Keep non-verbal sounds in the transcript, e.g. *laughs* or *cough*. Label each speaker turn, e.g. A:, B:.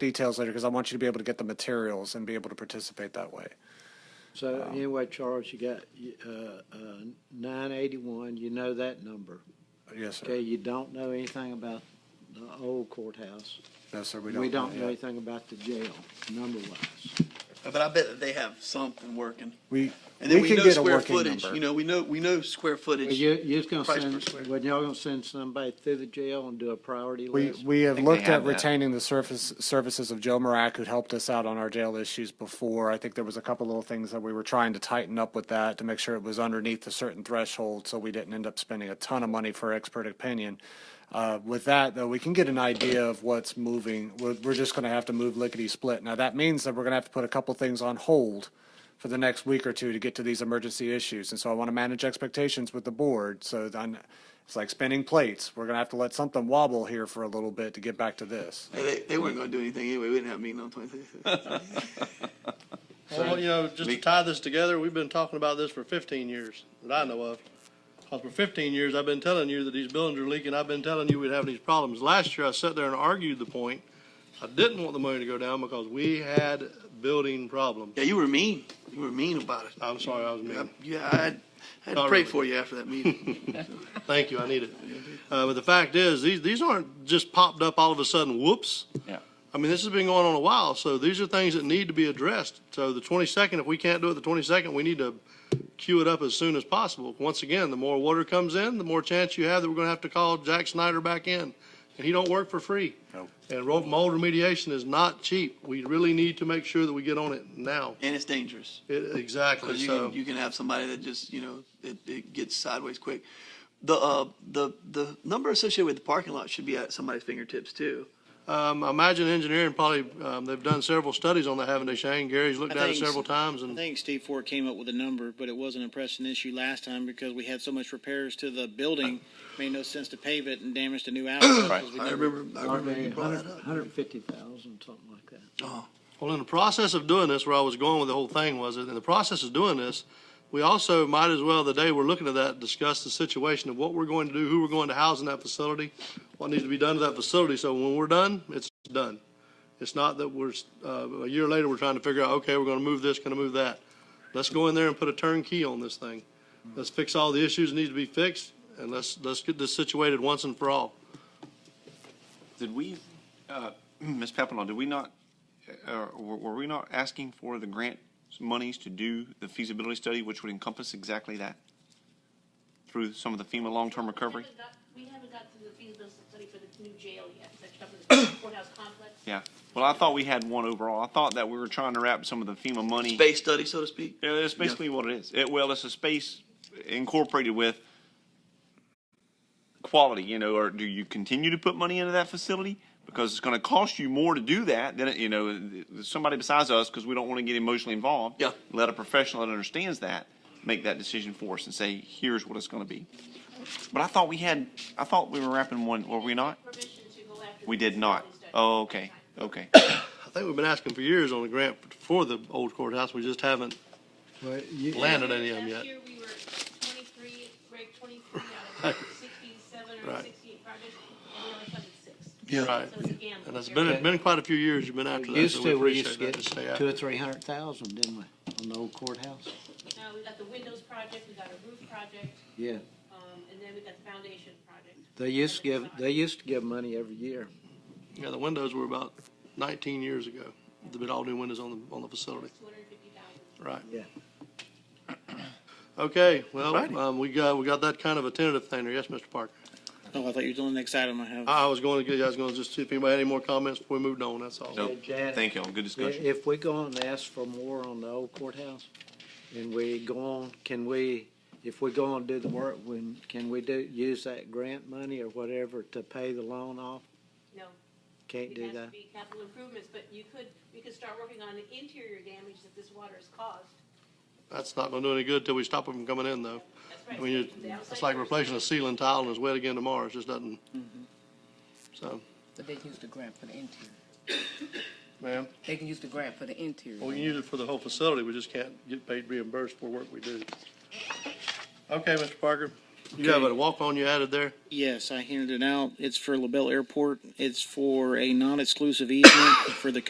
A: details later because I want you to be able to get the materials and be able to participate that way.
B: So anyway, Charles, you got, uh, uh, nine eighty-one, you know that number.
A: Yes,
B: Okay,
A: sir.
B: you don't know anything about the old courthouse.
A: No, sir, we don't.
B: We don't
A: yet.
B: know anything about the jail, number-wise.
C: But I bet that they have something working.
A: We,
C: And then
A: we
C: we,
A: can
C: know
A: get a
C: square
A: working
C: footage. You
A: number.
C: know, we know we know square footage.
B: Well, You, you're gonna
C: Price per square.
B: send, when y'all gonna send somebody through the jail and do a priority
A: We,
B: list?
A: we have
D: think they
A: looked at
D: have that.
A: retaining the surface, services of Joe Marac, who helped us out on our jail issues before. I think there was a couple little things that we were trying to tighten up with that to make sure it was underneath a certain threshold, so we didn't end up spending a ton of money for expert opinion. Uh, with that, though, we can get an idea of what's moving. We're, we're just gonna have to move lickety-split. Now, that means that we're gonna have to put a couple things on hold for the next week or two to get to these emergency issues. And so I want to manage expectations with the board. So then it's like spinning plates. We're going to have to let something wobble here for a little bit to get back to this.
C: Hey, they, they weren't going to do anything anyway. We didn't have a meeting on twenty *laughs* sixth.
E: Well, you know, just to tie this together, we've been talking about this for fifteen years, that I know of. 'Cause for fifteen years, I've been telling you that these buildings are leaking, I've been telling you we'd have these problems. Last year, I sat there and argued the point. I didn't want the money to go down because we had building problems.
C: yeah, you were mean. You were mean about it.
E: I'm sorry, I was mean.
C: Yeah, I had, I had to
E: Not
C: pray
E: really.
C: for you after that *laughs* meeting.
E: Thank you, I need it. Uh, but the fact is, these, these aren't just popped up all of a sudden, whoops.
D: Yeah.
E: I mean, this has been going on a while, so these are things that need to be addressed. So the twenty-second, if we can't do it the twenty-second, we need to queue it up as soon as possible. Once again, the more water comes in, the more chance you have that we're gonna have to call Jack Snyder back in, and he don't work for free.
D: Nope.
E: And ro- mold remediation is not cheap. We really need to make sure that we get on it now.
C: and it's dangerous.
E: It- Exactly,
C: Because you,
E: so,
C: can, you can have somebody that just, you know, it, it gets sideways quick. The, uh, the, the number associated with the parking lot should be at somebody's fingertips too.
E: um, I imagine engineering probably, um, they've done several studies on that, haven't they, Shane? Gary's looked
F: I
E: at it
F: think so.
E: several times
F: I
E: and.
F: think Steve Ford came up with a number, but it wasn't a pressing issue last time because we had so much repairs to the building, made no sense to pave it and damage the new outlets.
D: Right.
F: because we
C: I
F: never-
C: remember, I remember you brought that up.
B: Hundred and fifty thousand, something like that.
E: Well, in the process of doing this, where I was going with the whole thing was that in the process of doing this, we also might as well, the day we're looking at that, discuss the situation of what we're going to do, who we're going to house in that facility, what needs to be done to that facility. So when we're done, it's done. It's not that we're, uh, a year later, we're trying to figure out, okay, we're going to move this, going to move that. Let's go in there and put a turnkey on this thing. Let's fix all the issues that need to be fixed and let's, let's get this situated once and for all.
D: Did we, uh, *clears throat* Ms. Papelon, did we not, uh, were were we not asking for the grant monies to do the feasibility study, which would encompass exactly that? Through some of the FEMA long-term recovery?
G: We haven't got- We haven't got to the feasibility study for the new jail yet, that's up in the *coughs* courthouse complex.
D: Yeah. Well, I thought we had one overall. I thought that we were trying to wrap some of the FEMA money.
C: Space study, so to speak.
D: Yeah, that's basically what it is. It, well, it's a space incorporated with quality, you know, or do you continue to put money into that facility? Because it's going to cost you more to do that than, it- you know, th- somebody besides us, because we don't want to get emotionally involved.
C: Yeah.
D: Let a professional that understands that make that decision for us and say, here's what it's going to be. But I thought we had, I thought we were wrapping one, were we not?
G: Permission to go after.
D: We
G: the
D: did not.
G: feasibility study.
D: Oh, okay, okay.
E: I think we've been asking for years on a grant for the old courthouse. We just haven't
B: Well, you,
E: landed any of them yet.
G: Last year, we were twenty-three, Greg, twenty-three out of sixty-seven or
E: Right.
G: sixty-eight projects, and we only funded six.
C: Yeah.
E: Right.
G: So it's a gamble.
E: And it's been, it's been quite a few years you've been after that,
B: used
E: so we
B: to, we used to
E: appreciate that.
B: get
E: to stay after.
B: two or three hundred thousand, didn't we, on the old courthouse?
G: Now, we got the windows project, we got a roof project,
B: Yeah,
G: um, and then we got the foundation project.
B: they used to give, they used to give money every year.
E: Yeah, the windows were about nineteen years ago. They all new windows on the, on the facility,
G: Two hundred and fifty thousand.
E: right?
B: Yeah.
E: Okay, well,
D: Alrighty.
E: um, we got, we got that kind of a tentative thing there. Yes, Mr. Parker?
F: Oh, I thought you were doing the next item I have.
E: I I was going to, get. I was going to just see if anybody had any more comments before we moved on, that's all.
D: Nope.
B: Janet,
D: Thank y'all. Good
B: i-
D: discussion.
B: If we go and ask for more on the old courthouse, and we go on, can we, if we go and do the work, when, can we do, use that grant money or whatever to pay the loan off?
G: No,
B: Can't
G: it
B: do
G: has to
B: that?
G: be capital improvements, but you could, we could start working on the interior damage that this water has caused.
E: That's not gonna do any good till we stop them from coming in, though.
G: That's
E: I
G: right.
E: mean,
G: The
E: you-
G: outside
E: it's like
G: first.
E: replacing a ceiling tile and it's wet again tomorrow. It just doesn't.
B: Mm-hmm.
E: So,
H: But they can use the grant for the interior.
E: ma'am,
H: They can use the grant for the interior.
E: we can use it for the whole facility. We just can't get paid reimbursed for work we do. Okay, Mr. Parker? You have a walk-on you added there?
F: Yes, I handed it out. It's for LaBelle Airport. It's for a non-exclusive easement for the